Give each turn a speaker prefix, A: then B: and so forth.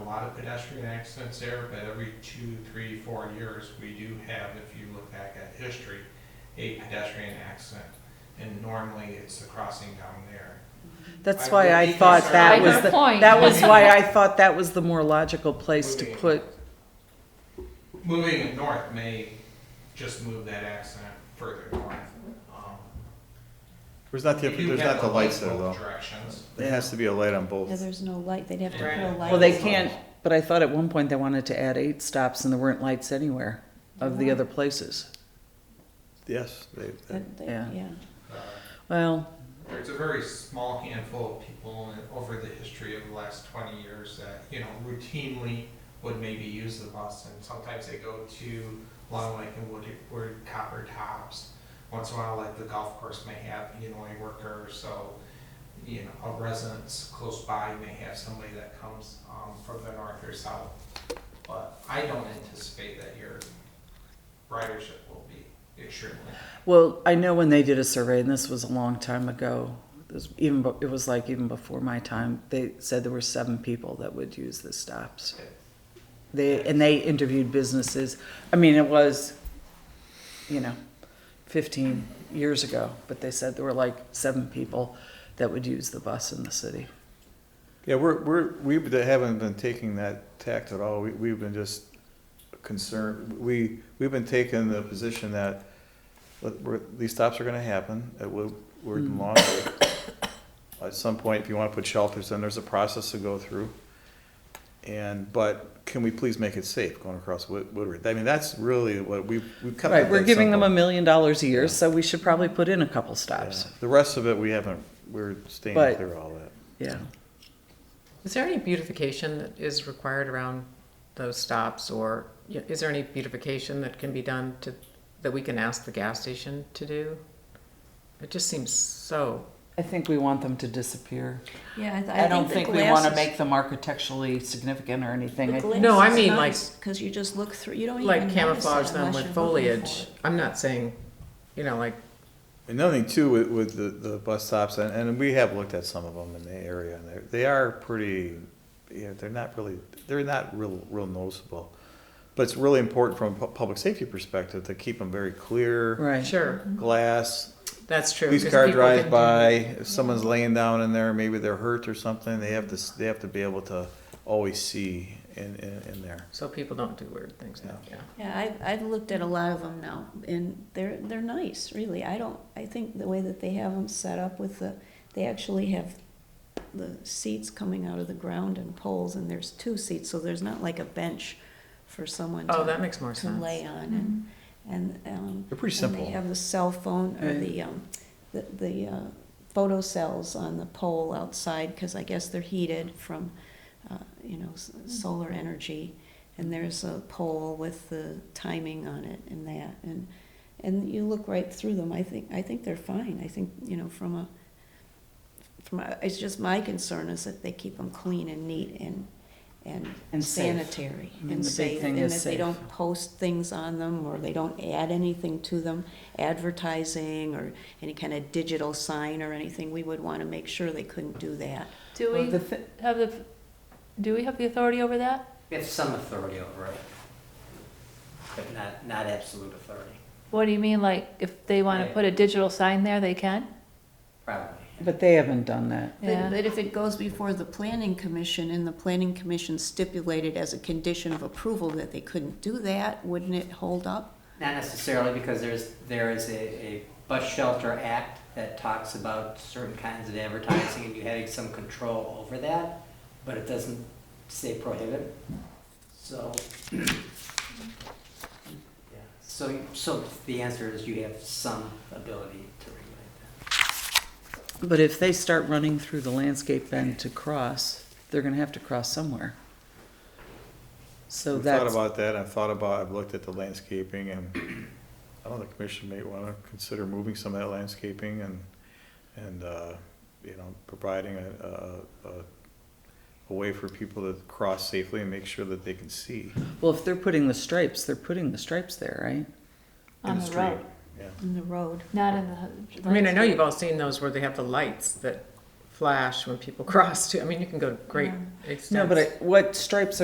A: lot of pedestrian accidents there, but every two, three, four years, we do have, if you look back at history, a pedestrian accident. And normally, it's the crossing down there.
B: That's
A: I
B: why
A: would
B: I
A: be
B: thought
A: concerned.
B: that
A: I
B: was,
A: got a
B: the
C: point.
B: that was why I thought that was the more logical place to
A: Moving.
B: put,
A: Moving it north may just move that accident further north. Um,
D: There's not the,
A: we do
D: there's
A: have
D: not the lights there
A: both
D: though.
A: Directions.
D: There has to be a light on
E: Yeah,
D: both.
E: there's no light, they'd have to put
A: Right.
E: a light.
B: well, they
A: on.
B: can't, but I thought at one point they wanted to add eight stops and there weren't lights anywhere of the other places.
D: Yes, they, they-
E: But they-
B: Yeah.
E: Yeah,
A: Uh,
B: Well,
A: There's a very small handful of people in- over the history of the last twenty years that, you know, routinely would maybe use the bus, and sometimes they go to Long Lake and Wood, Wood Copper Tops. Once in a while, like the golf course may have, you know, a worker, so, you know, a residence close by may have somebody that comes, um, from the north or south. But I don't anticipate that your ridership will be extremely
B: Well, I know when they did a survey, and this was a long time ago. It was even be- it was like even before my time. They said there were seven people that would use the stops. They and they interviewed businesses. I mean, it was, you know, fifteen years ago, but they said there were like seven people that would use the bus in the city.
D: yeah, we're, we're, we haven't been taking that tact at all. We, we've been just concerned, we, we've been taking the position that let- we're, these stops are gonna happen, it will, we're
B: Hmm.
D: in long. At some point, if you wanna put shelters in, there's a process to go through. And, but can we please make it safe going across Wood- Woodward? I mean, that's really what we've, we've kept it
B: Right, we're
D: that
B: giving them
D: simple.
B: a million dollars a year, so we should probably put in a couple stops.
D: The rest of it, we haven't, we're staying
B: But-
D: clear of all that.
B: Yeah.
F: Is there any beautification that is required around those stops, or y- is there any beautification that can be done to, that we can ask the gas station to do? It just seems so,
B: I think we want them to disappear.
E: yeah, I th-
B: I don't
E: the
B: think we want to
E: glasses-
B: make them architecturally significant or anything.
E: the
B: I-
E: glass
F: No, I
E: is
F: mean, like-
E: nice, Cause you just look through, you don't even
F: like
E: notice it
F: camouflage them
E: unless
F: with
E: you're looking
F: foliage.
E: for it.
F: I'm not saying, you know, like,
D: Another thing too with, with the, the bus stops, and, and we have looked at some of them in the area, and they're, they are pretty, you know, they're not really, they're not real, real noticeable. But it's really important from a pu- public safety perspective to keep them very clear,
B: Right.
F: sure,
D: glass.
F: that's true.
D: Police
F: 'cause
D: car
F: people
D: drives
F: can-
D: by, if someone's laying down in there, maybe they're hurt or something, they have to, s- they have to be able to always see in, in, in there.
F: So people don't do weird things now, yeah.
E: Yeah, I've, I've looked at a lot of them now, and they're, they're nice, really, I don't, I think the way that they have them set up with the, they actually have the seats coming out of the ground and poles, and there's two seats, so there's not like a bench for someone to.
F: Oh, that makes more
E: to lay
F: sense.
E: on and, and, um.
D: They're pretty
E: and
D: simple.
E: they have the cell phone or
B: Right.
E: the, um, the, the, uh, photo cells on the pole outside, cause I guess they're heated from, uh, you know, s-
B: Mm-hmm.
E: solar energy. And there's a pole with the timing on it and that, and, and you look right through them, I think, I think they're fine, I think, you know, from a, from a, it's just my concern is that they keep them clean and neat and,
B: And
E: and
B: safe.
E: sanitary
B: I mean,
E: and
B: the big
E: safe,
B: thing
E: and
B: is
E: that they
B: safe.
E: don't post things on them, or they don't add anything to them, advertising, or any kind of digital sign or anything, we would wanna make sure they couldn't do that.
G: Do we
B: The thi-
G: have the, do we have the authority over that?
H: We have some authority over it, but not, not absolute authority,
G: What do you mean, like, if they want to
H: Right.
G: put a digital sign there, they can?
H: probably.
B: But they haven't done that.
G: Yeah.
E: But, but if it goes before the planning commission, and the planning commission stipulated as a condition of approval that they couldn't do that, wouldn't it hold up?
H: Not necessarily, because there's, there is a, a bus shelter act that talks about certain kinds of advertising and you having some control over that, but it doesn't say prohibit, so. yeah. So, so the answer is you have some ability to regulate
B: But if they start running through the landscape bend to cross, they're gonna have to cross somewhere. So
D: I've thought
B: that's,
D: about that, I've thought about, I've looked at the landscaping and, I don't know, the commission may wanna consider moving some of that landscaping and, and, uh, you know, providing a, a, a, a way for people to cross safely and make sure that they can see
B: well, if they're putting the stripes, they're putting the stripes there, right?
D: in
G: On
D: the
G: the
D: street.
G: road,
D: Yeah,
E: In the road.
G: not in the.
F: I mean, I know you've all seen those where they have the lights that flash when people cross too. I mean, you can go to great
E: Yeah.
F: extents.
B: No, but I- what stripes